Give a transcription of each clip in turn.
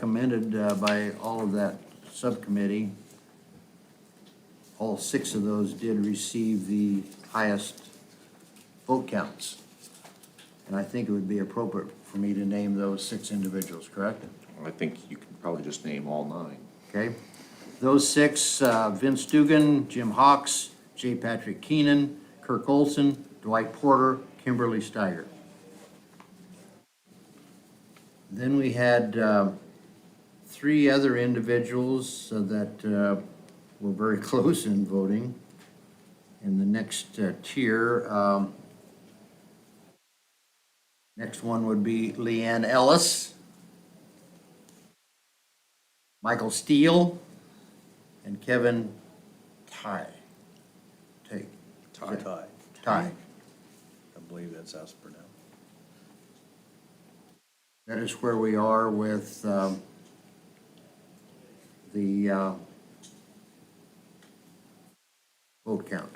recommended uh, by all of that subcommittee. All six of those did receive the highest vote counts. And I think it would be appropriate for me to name those six individuals, correct? I think you could probably just name all nine. Okay? Those six, uh, Vince Dugan, Jim Hawks, J. Patrick Keenan, Kirk Olson, Dwight Porter, Kimberly Steiger. Then we had uh, three other individuals uh, that uh, were very close in voting in the next uh, tier. um, Next one would be Leanne Ellis, Michael Steele, and Kevin Ty. Take, Tie. Tie. Ty. I believe that's how it's pronounced. That is where we are with um, the uh, vote count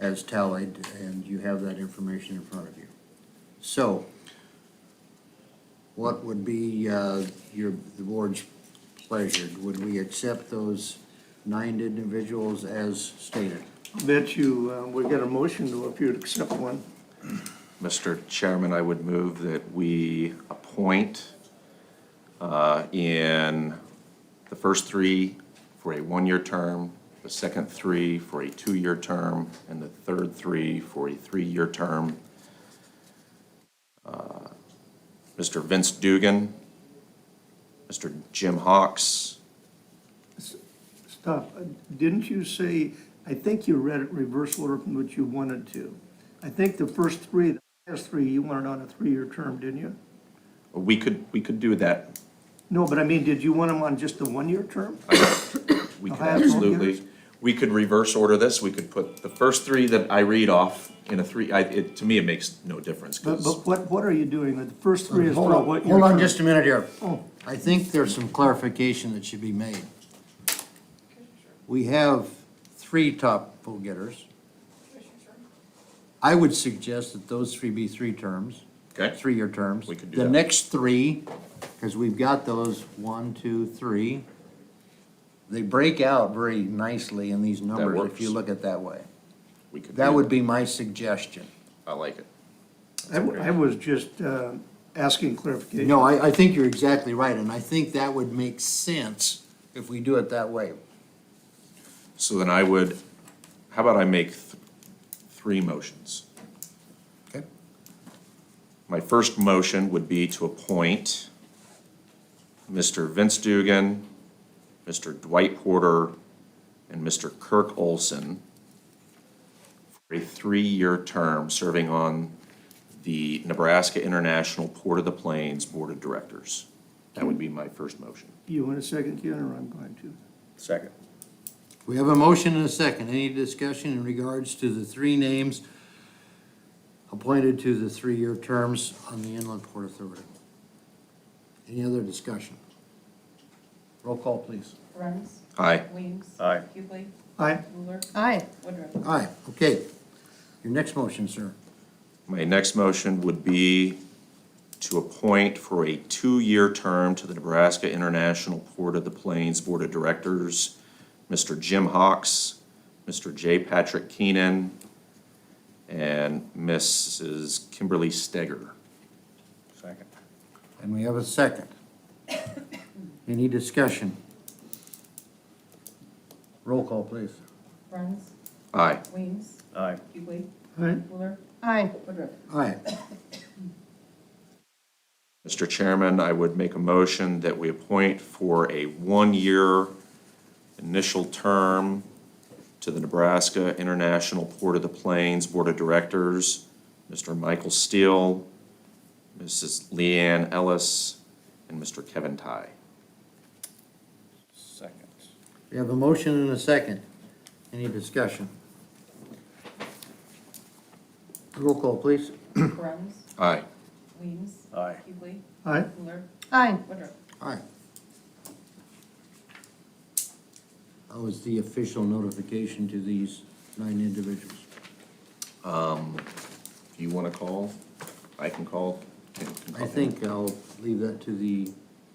as tallied, and you have that information in front of you. So what would be uh, your, the board's pleasure? Would we accept those nine individuals as stated? Bet you, uh, we got a motion to if you'd accept one. Mr. Chairman, I would move that we appoint uh, in the first three for a one-year term, the second three for a two-year term, and the third three for a three-year term. Uh, Mr. Vince Dugan, Mr. Jim Hawks, Stop. Uh, Didn't you say, I think you read it reverse order from what you wanted to. I think the first three, the last three, you wanted on a three-year term, didn't you? we could, we could do that. No, but I mean, did you want them on just a one-year term? We The could highest vote absolutely, getters? we could reverse order this, we could put the first three that I read off in a three, I, it, to me, it makes no difference, But, because but what, what are you doing? The first three is Hold for on, what year? hold on term? just a minute here. Oh. I think there's some clarification that should be made. We have three top vote getters. I would suggest that those three be three terms. Okay. Three-year terms. We could do The that. next three, because we've got those, one, two, three, they break out very nicely in these numbers if you look works. at that way. we could. That do would be my suggestion. I like it. I, w- I was just, uh, asking clarification. No, I, I think you're exactly right, and I think that would make sense if we do it that way. So then I would, how about I make th- three motions? Okay. My first motion would be to appoint Mr. Vince Dugan, Mr. Dwight Porter, and Mr. Kirk Olson for a three-year term serving on the Nebraska International Port of the Plains Board of Directors. That would be my first motion. You want a second, Ken, or I'm going to? Second. We have a motion and a second. Any discussion in regards to the three names appointed to the three-year terms on the Inland Port Authority? Any other discussion? Roll call, please. Runs. Aye. Weems. Aye. Hughley. Aye. Ruler. Aye. Woodruff. Aye, okay. Your next motion, sir. My next motion would be to appoint for a two-year term to the Nebraska International Port of the Plains Board of Directors, Mr. Jim Hawks, Mr. J. Patrick Keenan, and Mrs. Kimberly Steger. Second. And we have a second. Any discussion? Roll call, please. Runs. Aye. Weems. Aye. Hughley. Aye. Ruler. Aye. Woodruff. Aye, Mr. Chairman, I would make a motion that we appoint for a one-year initial term to the Nebraska International Port of the Plains Board of Directors, Mr. Michael Steele, Mrs. Leanne Ellis, and Mr. Kevin Ty. Second. we have a motion and a second. Any discussion? Roll call, please. Runs. Aye. Weems. Aye. Hughley. Aye. Ruler. Aye. Woodruff. Aye. That was the official notification to these nine individuals. Um, Do you want to call? I can call. Can- can I call. think I'll leave that to the